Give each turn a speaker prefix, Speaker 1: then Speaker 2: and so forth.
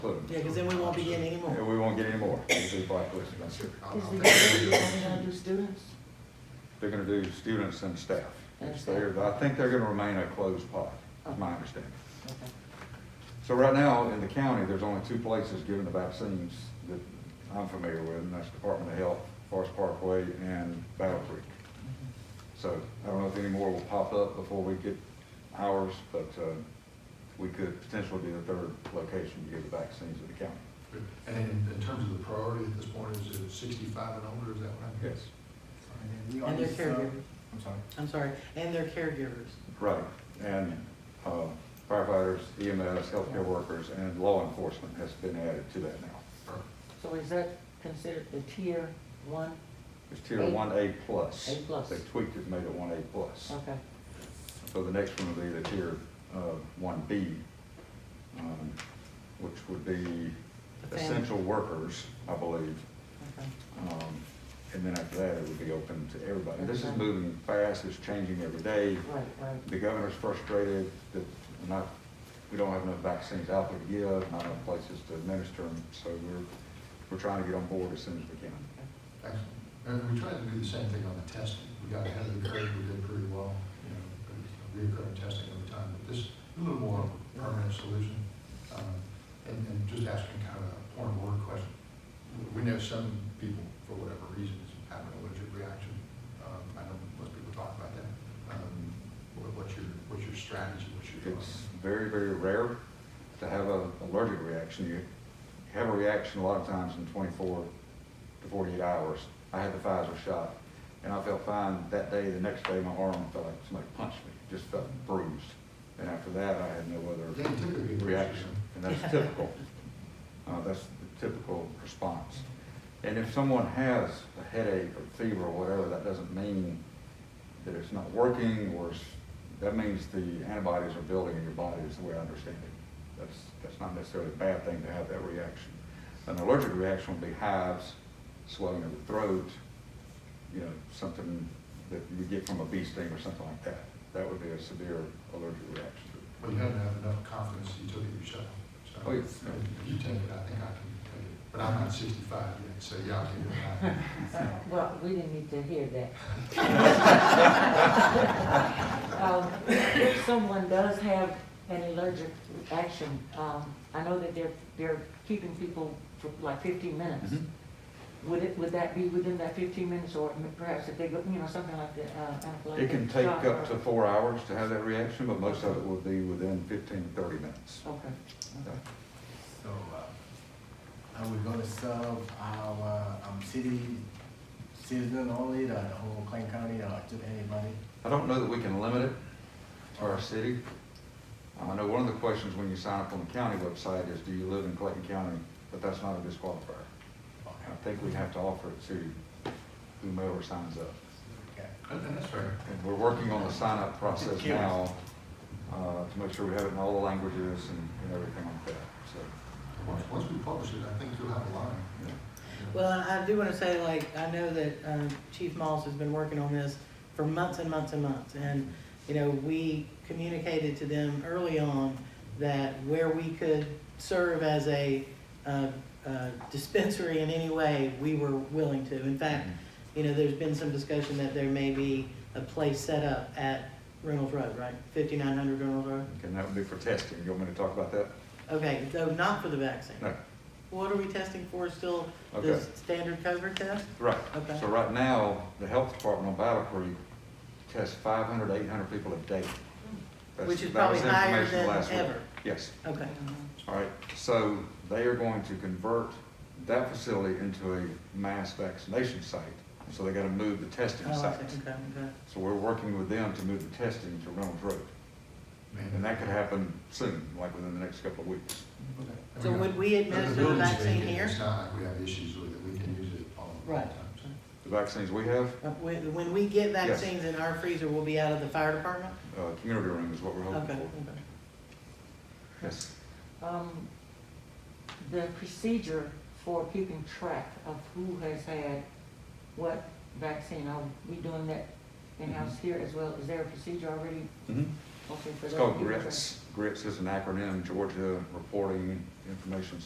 Speaker 1: put them.
Speaker 2: Yeah, because then we won't be getting any
Speaker 1: And
Speaker 2: more.
Speaker 1: we won't get any more, It's a blacklisted.
Speaker 3: I'll-
Speaker 4: Is
Speaker 3: I'll
Speaker 4: the
Speaker 3: take it.
Speaker 4: committee only gonna do students?
Speaker 1: They're gonna do students and staff. It's there, but I think they're gonna remain a closed pod, is my understanding.
Speaker 4: Okay.
Speaker 1: So right now, in the county, there's only two places giving the vaccines that I'm familiar with, and that's Department of Health, Forest Parkway, and Battle Creek.
Speaker 2: Mm-hmm.
Speaker 1: So I don't know if any more will pop up before we get ours, but uh, we could potentially be the third location to give the vaccines in the county.
Speaker 3: And in, in terms of the priority at this point, is it sixty-five and older, is that what I'm hearing?
Speaker 1: Yes,
Speaker 5: we
Speaker 2: And their
Speaker 5: already sub-
Speaker 2: caregiver.
Speaker 5: I'm sorry.
Speaker 2: I'm sorry, and their caregivers.
Speaker 1: right. And uh, firefighters, EMS, healthcare workers, and law enforcement has been added to that now.
Speaker 3: Or-
Speaker 4: So is that considered the tier one?
Speaker 1: It's tier
Speaker 4: Eight.
Speaker 1: one A plus.
Speaker 4: A plus.
Speaker 1: They tweaked it, made it one A plus.
Speaker 4: Okay.
Speaker 1: So the next one will be the tier uh, one B, um, which would be
Speaker 2: The fam-
Speaker 1: essential workers, I believe.
Speaker 4: okay.
Speaker 1: Um, And then after that, it would be open to everybody. This is
Speaker 4: Okay.
Speaker 1: moving fast, it's changing every day.
Speaker 4: Right, right.
Speaker 1: The governor's frustrated that we're not, we don't have enough vaccines out there to give, not enough places to administer them. So we're, we're trying to get on board as soon as we can.
Speaker 3: Excellent. And we tried to do the same thing on the testing. We got ahead of the curve, we did pretty well, you know, but it's reoccurring testing over time. But this, a little more permanent solution. Um, And, and just asking kind of a point of order question. We know some people, for whatever reasons, have an allergic reaction. Um, I know most people talk about that. Um, what- What's your, what's your strategy? What's your?
Speaker 1: It's very, very rare to have a allergic reaction. You have a reaction a lot of times in 24 to 48 hours. I had the Pfizer shot, and I felt fine that day. The next day, my arm felt like somebody punched me, just felt bruised. And after that, I had no
Speaker 3: They
Speaker 1: other
Speaker 3: typically.
Speaker 1: reaction, and that's typical. Uh, That's the typical response. And if someone has a headache or fever or whatever, that doesn't mean that it's not working or it's- that means the antibodies are building in your body is the way I understand it. That's, that's not necessarily a bad thing to have that reaction. An allergic reaction would be hives, swelling of the throat, you know, something that you would get from a bee sting or something like that. That would be a severe allergic reaction.
Speaker 3: Well, you had to have enough confidence that you took it yourself. So,
Speaker 1: Oh, yes.
Speaker 3: You take it, I think I can take it. But I'm not sixty-five yet, so y'all can do it.
Speaker 4: Well, we didn't need to hear that. Um, If someone does have an allergic reaction, um, I know that they're, they're keeping people for like fifteen minutes.
Speaker 1: Mhm.
Speaker 4: Would it, would that be within that fifteen minutes or perhaps if they go, you know, something like the, uh, anaphylactic
Speaker 1: It can take
Speaker 4: shock
Speaker 1: up
Speaker 4: or-
Speaker 1: to four hours to have that reaction, but most of it will be within 15, 30 minutes.
Speaker 4: Okay. okay.
Speaker 5: So, uh, I would go to sub our, um, city citizen only, the whole Clayton County, or just anybody?
Speaker 1: I don't know that we can limit it to our city. I know one of the questions when you sign up on the county website is, do you live in Clayton County? But that's not a disqualifier. I think we have to offer it to whomever signs up.
Speaker 5: Okay.
Speaker 3: And and that's fair.
Speaker 1: And we're working on the sign-up process now uh, to make sure we have it in all the languages and and everything like that, so.
Speaker 3: Once, once we publish it, I think you'll have a line.
Speaker 1: yeah.
Speaker 2: Well, and I do want to say, like, I know that um, Chief Moss has been working on this for months and months and months. And, you know, we communicated to them early on that where we could serve as a uh, uh, dispensary in any way, we were willing to. In fact,
Speaker 1: Mm-hmm.
Speaker 2: you know, there's been some discussion that there may be a place set up at Reynolds Road, right? 5900 Reynolds Road?
Speaker 1: And that would be for testing. You want me to talk about that?
Speaker 2: Okay, though not for the vaccine.
Speaker 1: No.
Speaker 2: What are we testing for still? The
Speaker 1: Okay.
Speaker 2: standard COVID test?
Speaker 1: Right.
Speaker 2: Okay.
Speaker 1: So right now, the health department on Battle Creek tests 500, 800 people a day. That's-
Speaker 2: Which is
Speaker 1: that was
Speaker 2: probably higher
Speaker 1: information
Speaker 2: than
Speaker 1: last week.
Speaker 2: ever.
Speaker 1: Yes,
Speaker 2: Okay,
Speaker 1: all right. So they are going to convert that facility into a mass vaccination site. So they got to move the testing
Speaker 2: oh, I
Speaker 1: site.
Speaker 2: see, okay, okay.
Speaker 1: So we're working with them to move the testing to Reynolds Road. And that could happen soon, like within the next couple of weeks.
Speaker 3: Okay. And
Speaker 2: So
Speaker 3: we
Speaker 2: would
Speaker 3: got-
Speaker 2: we
Speaker 3: but
Speaker 2: administer the
Speaker 3: building's
Speaker 2: vaccine
Speaker 3: vacant.
Speaker 2: here?
Speaker 3: It's not like we have issues with it, we can use it all the
Speaker 2: Right.
Speaker 3: time.
Speaker 1: The vaccines we have,
Speaker 2: Uh, When, when we get
Speaker 1: Yes.
Speaker 2: vaccines in our freezer, we'll be out of the fire department?
Speaker 1: uh, community room is what we're
Speaker 2: Okay,
Speaker 1: hoping for.
Speaker 2: okay.
Speaker 1: Yes.
Speaker 4: Um, the procedure for keeping track of who has had what vaccine, are we doing that in-house here as well? Is there a procedure already?
Speaker 1: Mhm.
Speaker 4: Okay, for
Speaker 1: It's
Speaker 4: that?
Speaker 1: called GRITS. GRITS is an acronym, Georgia Reporting Information